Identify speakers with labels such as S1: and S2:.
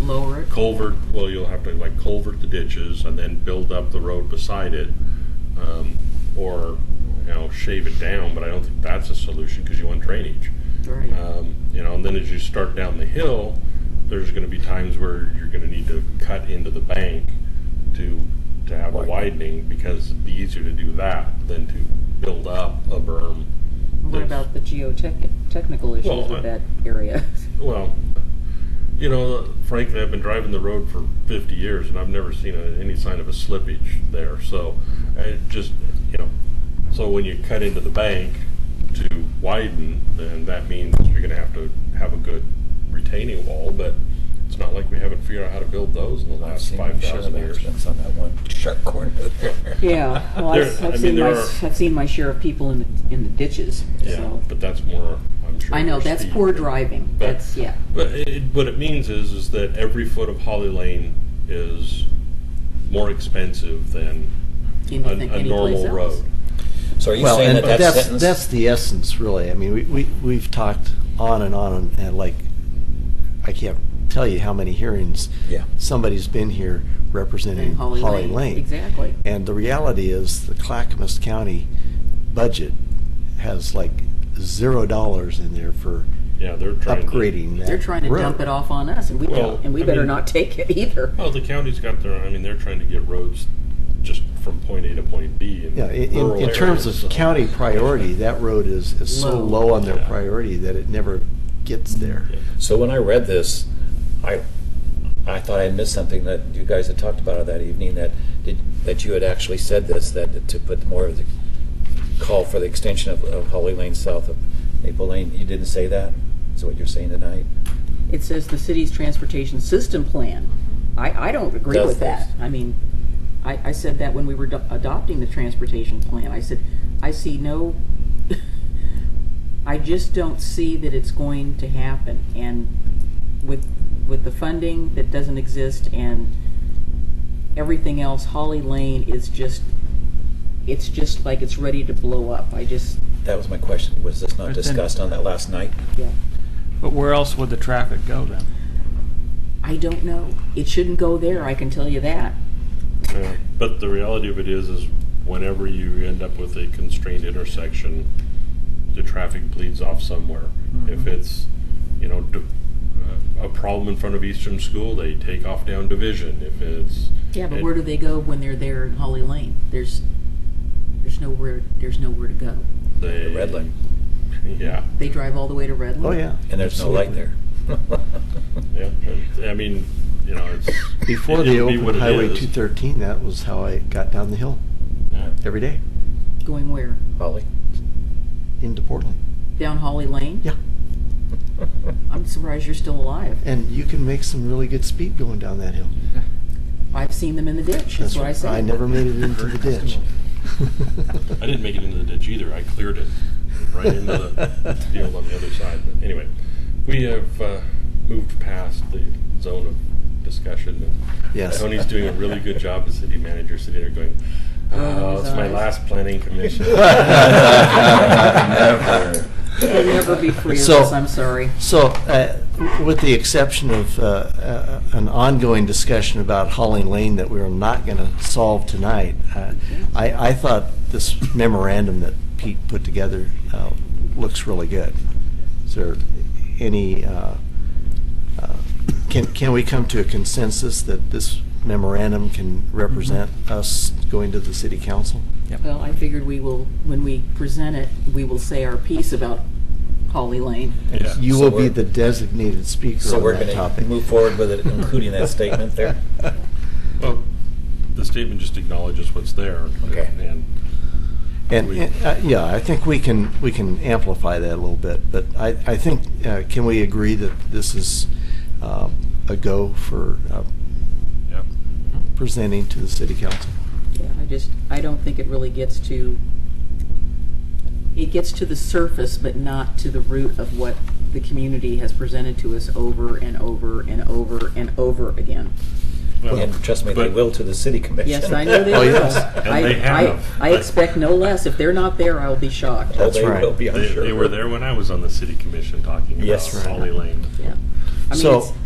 S1: lower it.
S2: culvert, well, you'll have to like culvert the ditches and then build up the road beside it. um, Or, you know, shave it down, but I don't think that's a solution because you want drainage.
S1: Right.
S2: Um, You know, and then as you start down the hill, there's gonna be times where you're gonna need to cut into the bank to, to have a widening because it'd be easier to do that than to build up a berm.
S1: What
S2: that's-
S1: about the geotech, technical issues
S2: Well, I-
S1: with that area?
S2: Well, you know, frankly, I've been driving the road for 50 years and I've never seen a, any sign of a slippage there. So I just, you know, so when you cut into the bank to widen, then that means you're going to have to have a good retaining wall. But it's not like we haven't figured out how to build those in the
S3: I've
S2: last
S3: seen shit
S2: 5,000
S3: of
S2: years.
S3: accidents on that one sharp corner there.
S1: Yeah, well, I've,
S2: There- I mean,
S1: I've seen my,
S2: there are-
S1: I've seen my share of people in the, in the ditches,
S2: Yeah,
S1: so.
S2: but that's more, I'm sure.
S1: I know,
S2: for
S1: that's
S2: speed.
S1: poor driving,
S2: But-
S1: that's, yeah,
S2: But it, what it means is, is that every foot of Holly Lane is more expensive than a,
S1: anything,
S2: a
S1: any place
S2: normal
S1: else.
S2: road.
S3: So are you
S4: Well,
S3: saying
S4: and
S3: that that
S4: that's,
S3: sentence?
S4: that's the essence, really. I mean, we, we, we've talked on and on, and, and like, I can't tell you how many hearings
S3: yeah.
S4: somebody's been here representing
S1: And Holly Lane, exactly.
S4: Mm-hmm. And the reality is, the Clackamas County budget has like zero dollars in there for
S2: Yeah, they're trying
S4: upgrading that.
S1: They're trying to
S4: road.
S1: dump it off on us, and we
S2: Well,
S1: don't, and we
S2: I
S1: better
S2: mean-
S1: not take it either.
S2: To, oh, the county's got their. I mean, they're trying to get roads just from point A to point B. In
S4: Yeah, i- in,
S2: rural
S4: in terms
S2: areas,
S4: of
S2: so-
S4: county priority, that road is, is so
S1: Low.
S4: low on their
S2: Yeah.
S4: priority that it never gets there.
S2: Yeah.
S3: So when I read this, I I thought I missed something that you guys had talked about that evening that did, that you had actually said this that to put more of the call for the extension of, of Holly Lane south of Maple Lane. You didn't say that. Is what you're saying tonight?
S1: It says the city's transportation system plan. I, I don't agree
S3: Does
S1: with that.
S3: this.
S1: I mean, I, I said that when we were do- adopting the transportation plan. I said, I see no, I just don't see that it's going to happen. And with, with the funding that doesn't exist and everything else, Holly Lane is just, it's just like it's ready to blow up. I just,
S3: That was my question. Was this not
S5: But then-
S3: discussed on that last night?
S1: yeah.
S5: But where else would the traffic go then?
S1: I don't know. It shouldn't go there, I can tell you that.
S2: Yeah. But the reality of it is, is whenever you end up with a constrained intersection, the traffic bleeds off somewhere.
S4: Mm-hmm.
S2: If it's, you know, d- uh, a problem in front of Eastern School, they take off down Division. If it's
S1: Yeah, but
S2: it-
S1: where do they go when they're there in Holly Lane? There's, there's nowhere, there's nowhere to go.
S2: they,
S3: The red light.
S2: yeah,
S1: They drive all the way to Redland.
S4: Oh, yeah.
S3: And there's no light
S4: Absolutely.
S3: there.
S2: yeah. And, I mean, you know, it's
S4: Before
S2: it-
S4: they
S2: it'll be what
S4: opened
S2: it
S4: Highway
S2: is.
S4: 213, that was how I got down the hill
S2: Yeah.
S4: every day
S1: Going where?
S3: Holly.
S4: into Portland.
S1: Down Holly Lane?
S4: Yeah.
S1: I'm surprised you're still alive.
S4: And you can make some really good speed going down that hill.
S1: I've seen them in the ditch, that's what I said.
S4: I never made it into the ditch.
S2: I didn't make it into the ditch either. I cleared it right into the field on the other side. But anyway, we have uh, moved past the zone of discussion. And
S4: Yes.
S2: Tony's doing a really good job as city manager, sitting there going,
S1: Oh,
S2: "Oh,
S1: his
S2: it's my
S1: eyes.
S2: last planning commission."
S3: Never.
S1: You'll never be free of
S4: So-
S1: this, I'm sorry.
S4: So, uh, with the exception of uh, uh, an ongoing discussion about Holling Lane that we're not going to solve tonight, uh, I, I thought this memorandum that Pete put together uh, looks really good. Is there any, uh, uh, can, can we come to a consensus that this memorandum can represent us going to the city council?
S1: Well, I figured we will, when we present it, we will say our piece about Holly Lane.
S4: And
S2: Yeah.
S4: You
S3: So
S4: will be
S3: we're-
S4: the designated speaker
S3: So
S4: on
S3: we're
S4: that
S3: going to
S4: topic.
S3: move forward with it, including that statement there.
S2: well, the statement just acknowledges what's there.
S3: Okay.
S2: And
S4: And,
S2: We-
S4: and, uh, yeah, I think we can, we can amplify that a little bit, but I, I think, uh, can we agree that this is um, a go for uh,
S2: yeah.
S4: presenting to the city council?
S1: Yeah, I just, I don't think it really gets to, it gets to the surface, but not to the root of what the community has presented to us over and over and over and over again.
S3: And trust me, they
S2: But-
S3: will to the city commission.
S1: Yes, I know they
S4: Oh,
S1: will.
S4: yes.
S1: I-
S2: And they
S1: I-
S2: have.
S1: I expect no less. If they're not there, I'll be shocked.
S3: Oh,
S4: That's
S3: they
S4: right.
S3: will be, I'm
S2: They,
S3: sure.
S2: they were there when I was on the city commission talking about
S3: Yes, right.
S2: Holly Lane.
S1: Yeah. I mean,
S4: So-
S1: it's-